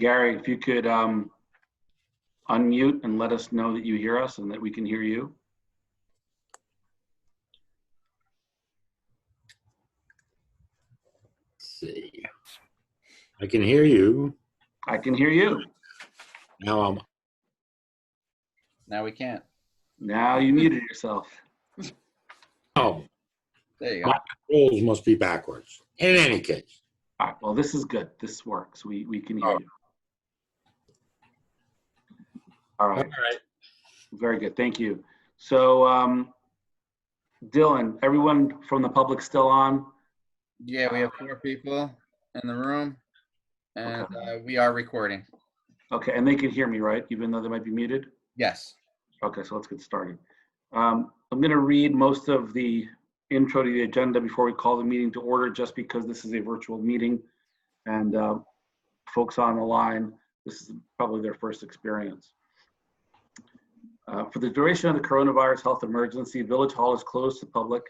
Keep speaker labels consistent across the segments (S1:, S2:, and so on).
S1: Gary, if you could um, unmute and let us know that you hear us and that we can hear you.
S2: see. I can hear you.
S1: I can hear you.
S2: Now I'm,
S3: Now we can't.
S1: Now you muted yourself.
S2: oh,
S3: There you go.
S2: My- rules must be backwards. In any case,
S1: All right, well, this is good. This works. We, we can hear you. All
S2: all
S1: right,
S2: right.
S1: very good. Thank you. So um, Dylan, everyone from the public still on?
S3: Yeah, we have four people in the room and uh, we are recording.
S1: Okay, and they can hear me, right? Even though they might be muted?
S3: Yes.
S1: Okay, so let's get started. Um, I'm going to read most of the intro to the agenda before we call the meeting to order, just because this is a virtual meeting. And uh, folks on the line, this is probably their first experience. Uh, For the duration of the coronavirus health emergency, Village Hall is closed to the public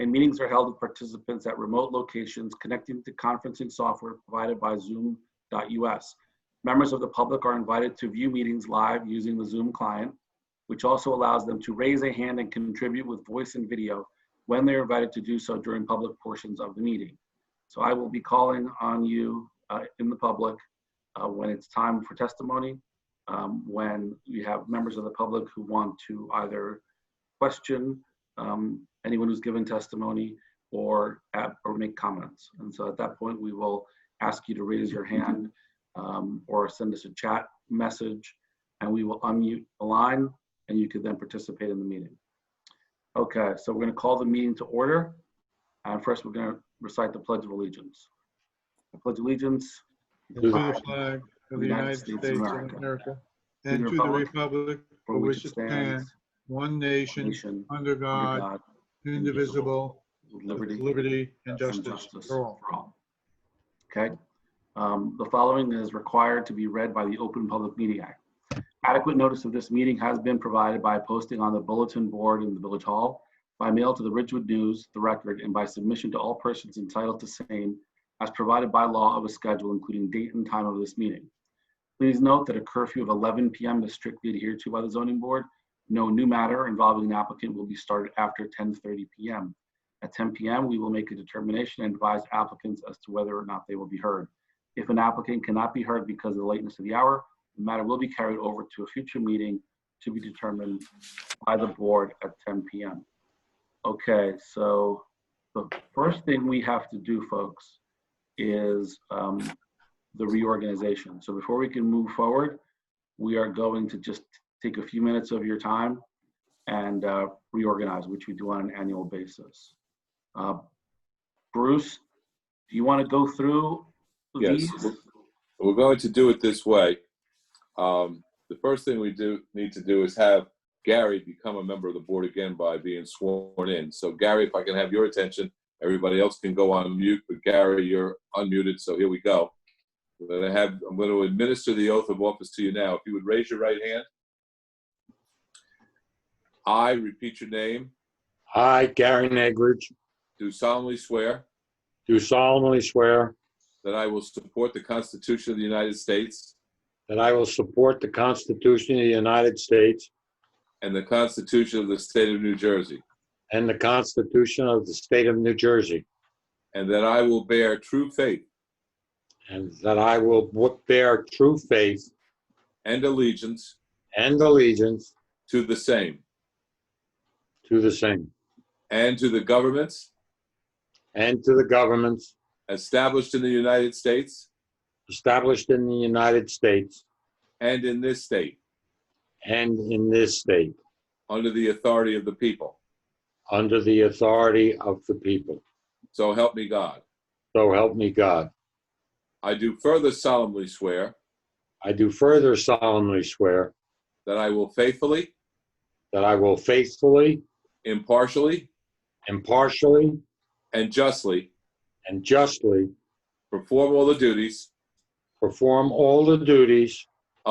S1: and meetings are held with participants at remote locations connecting to conferencing software provided by Zoom.us. Members of the public are invited to view meetings live using the Zoom client which also allows them to raise a hand and contribute with voice and video when they're invited to do so during public portions of the meeting. So I will be calling on you uh, in the public uh, when it's time for testimony, um, when you have members of the public who want to either question um, anyone who's given testimony or, at- or make comments. And so at that point, we will ask you to raise your hand um, or send us a chat message, and we will unmute the line and you could then participate in the meeting. Okay, so we're going to call the meeting to order. And first, we're going to recite the Pledge of Allegiance. I pledge allegiance
S4: and to the flag of the United States of
S1: America,
S4: America, and to the republic for which it stands, one nation,
S1: nation,
S4: under
S1: under
S4: God,
S1: God,
S4: indivisible,
S1: with
S4: with
S1: liberty,
S4: liberty and
S1: and
S4: justice for all.
S1: Okay. Um, The following is required to be read by the Open Public Meeting Act. Adequate notice of this meeting has been provided by posting on the bulletin board in the Village Hall, by mail to the Ridgewood News, the record, and by submission to all persons entitled to same as provided by law of a schedule, including date and time of this meeting. Please note that a curfew of 11 PM is strictly adhered to by the zoning board. No new matter involving an applicant will be started after 10:30 PM. At 10 PM, we will make a determination and advise applicants as to whether or not they will be heard. If an applicant cannot be heard because of the lateness of the hour, the matter will be carried over to a future meeting to be determined by the board at 10 PM. Okay, so the first thing we have to do, folks, is um, the reorganization. So before we can move forward, we are going to just take a few minutes of your time and uh, reorganize, which we do on an annual basis. Uh, Bruce, do you want to go through
S5: Yes.
S1: these?
S5: We're going to do it this way. Um, the first thing we do need to do is have Gary become a member of the board again by being sworn in. So Gary, if I can have your attention, everybody else can go on mute, but Gary, you're unmuted, so here we go. I'm gonna have, I'm gonna administer the oath of office to you now. If you would raise your right hand. I repeat your name,
S2: I, Gary Negridge,
S5: do solemnly swear
S2: do solemnly swear
S5: that I will support the Constitution of the United States
S2: that I will support the Constitution of the United States
S5: and the Constitution of the State of New Jersey.
S2: and the Constitution of the State of New Jersey,
S5: and that I will bear true faith
S2: and that I will wo- bear true faith
S5: and allegiance
S2: and allegiance
S5: to the same
S2: to the same,
S5: and to the governments
S2: and to the governments
S5: established in the United States
S2: established in the United States
S5: and in this state
S2: and in this state,
S5: under the authority of the people.
S2: under the authority of the people.
S5: So help me God.
S2: So help me God.
S5: I do further solemnly swear
S2: I do further solemnly swear
S5: that I will faithfully,
S2: that I will faithfully,
S5: impartially,
S2: impartially,
S5: and justly
S2: and justly
S5: perform all the duties
S2: perform all the duties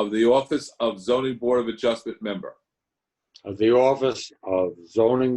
S5: of the office of Zoning Board of Adjustment member
S2: of the office of zoning